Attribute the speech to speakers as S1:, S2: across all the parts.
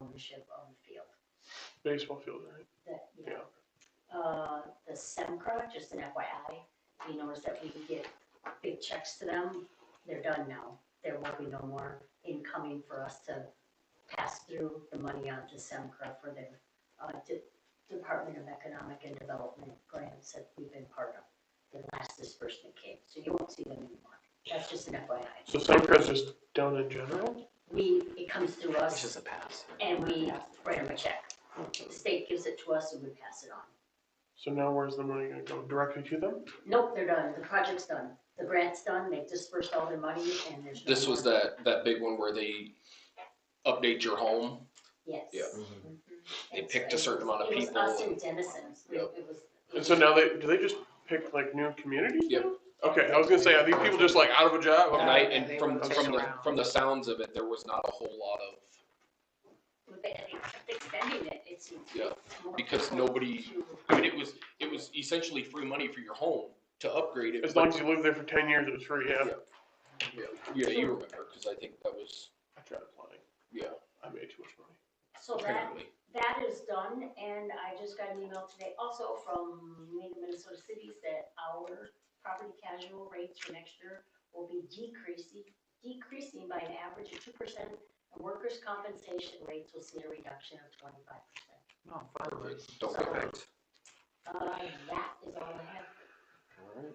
S1: championship on the field.
S2: baseball field, right?
S1: that, you know, uh, the SEMCR, just an FYI, you notice that we can get big checks to them, they're done now. There will be no more incoming for us to pass through the money on to SEMCR for their, uh, De- Department of Economic and Development grants that we've been part of. The last disbursement came, so you won't see them anymore. That's just an FYI.
S2: So Semcra's just down in general?
S1: We, it comes through
S3: It's
S1: us
S3: just a pass.
S1: and we write them a check. The state gives it to us and we pass it on.
S2: So now where's the money gonna go? Directly to them?
S1: Nope, they're done, the project's done, the grant's done, they've dispersed all their money and there's. no
S4: This was
S1: more.
S4: that, that big one where they update your home.
S1: Yes.
S4: yeah.
S2: Mm-hmm.
S1: Mhm.
S4: They
S1: And
S4: picked
S1: so
S4: a certain amount of
S1: it was-
S4: people.
S1: It was us and Denison, it
S4: Yep.
S1: it was.
S2: And so now they, do they just pick like new communities
S4: Yep.
S2: now? Okay, I was gonna say, are these people just like out of a job?
S4: And
S3: Yeah,
S4: I,
S2: Okay.
S4: and
S3: they
S4: from,
S3: rotate
S4: from the,
S3: around.
S4: from the sounds of it, there was not a whole lot of,
S1: But They they kept extending it, it seems.
S4: Yeah,
S1: more
S4: because
S1: people
S4: nobody-
S1: to-
S4: I mean, it was, it was essentially free money for your home to upgrade it.
S2: As long as you live there for ten years, it's free, yeah.
S4: Yeah. Yeah, Yeah, you remember, cause I think that was,
S2: I tried applying.
S4: yeah,
S2: I made too much money.
S1: So that,
S4: apparently.
S1: that is done and I just got an email today also from League of Minnesota Cities that our property casual rates for next year will be decreasing, decreasing by an average of two percent. And workers' compensation rates will see a reduction of twenty-five percent.
S3: No, fire.
S4: Don't get backed.
S1: Uh, that is all I have.
S4: Alright.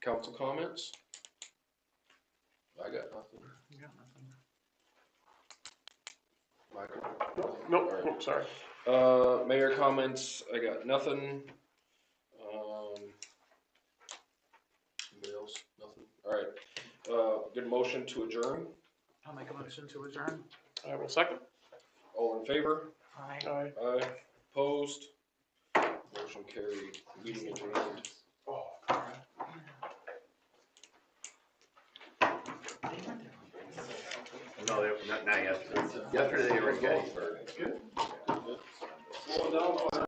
S4: Council comments? I got nothing. Michael?
S2: Nope,
S4: All
S2: nope,
S4: right.
S2: nope, sorry.
S4: Uh, mayor comments, I got nothing. Um. Anybody else? Nothing? Alright, uh, good motion to adjourn.
S3: I'll make a motion to adjourn.
S2: I will second.
S4: All in favor?
S3: Aye.
S2: Aye.
S4: Aye. Opposed? Motion carried. Meeting adjourned.
S2: Oh.
S5: No, they, not, not yesterday. Yesterday they were good.
S4: Very good.